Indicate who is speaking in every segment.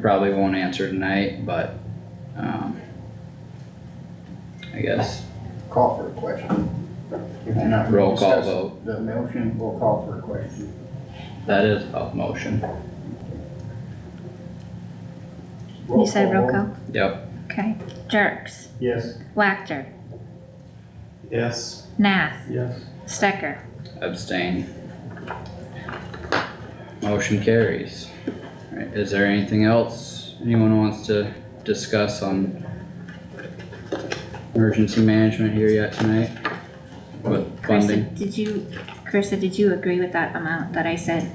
Speaker 1: Probably won't answer tonight, but, um, I guess
Speaker 2: Call for a question. If you're not
Speaker 1: roll call
Speaker 2: discussing
Speaker 1: vote,
Speaker 2: The motion, we'll call for a question.
Speaker 1: that is a motion,
Speaker 2: Roll
Speaker 3: You said roll call?
Speaker 1: yep,
Speaker 3: Okay. Jerks,
Speaker 2: Yes.
Speaker 3: Wactor,
Speaker 4: Yes.
Speaker 3: Nath,
Speaker 4: Yes.
Speaker 3: Stecker.
Speaker 1: abstain. Motion carries. Alright, is there anything else anyone wants to discuss on emergency management here yet tonight? With funding?
Speaker 3: Carissa, did you, Carissa, did you agree with that amount that I said?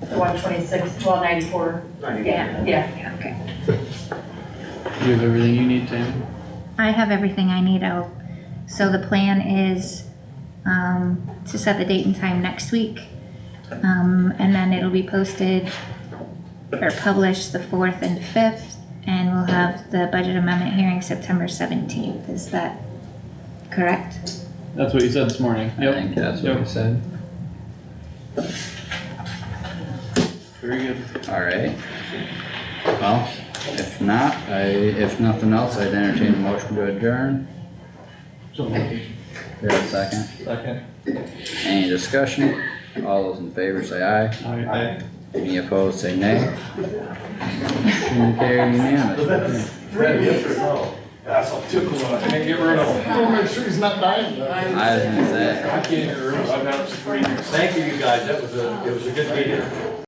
Speaker 5: The one twenty-six, twelve ninety-four,
Speaker 3: Yeah.
Speaker 5: yeah.
Speaker 3: Okay.
Speaker 4: You have everything you need, Tammy?
Speaker 3: I have everything I need out. So the plan is, um, to set the date and time next week. Um, and then it'll be posted or published the fourth and fifth. And we'll have the budget amendment hearing September seventeenth. Is that correct?
Speaker 4: That's what you said this morning.
Speaker 1: I
Speaker 4: Yep.
Speaker 1: think that's what I
Speaker 4: Yep.
Speaker 1: said.
Speaker 4: Very good.
Speaker 1: Alright. Well, if not, I, if nothing else, I'd entertain a motion to adjourn.
Speaker 2: So
Speaker 1: Do I have a second?
Speaker 4: Second.
Speaker 1: Any discussion? All those in favor say aye.
Speaker 4: Aye.
Speaker 1: Any opposed, say nay. Motion carried unanimously.
Speaker 6: That's a tickle.
Speaker 4: And get rid of
Speaker 6: I wanna make sure he's not dying. I
Speaker 1: I was gonna say,
Speaker 6: can't get rid of him. I've had it for three years.
Speaker 7: Thank you, you guys, that was a, it was a good meeting.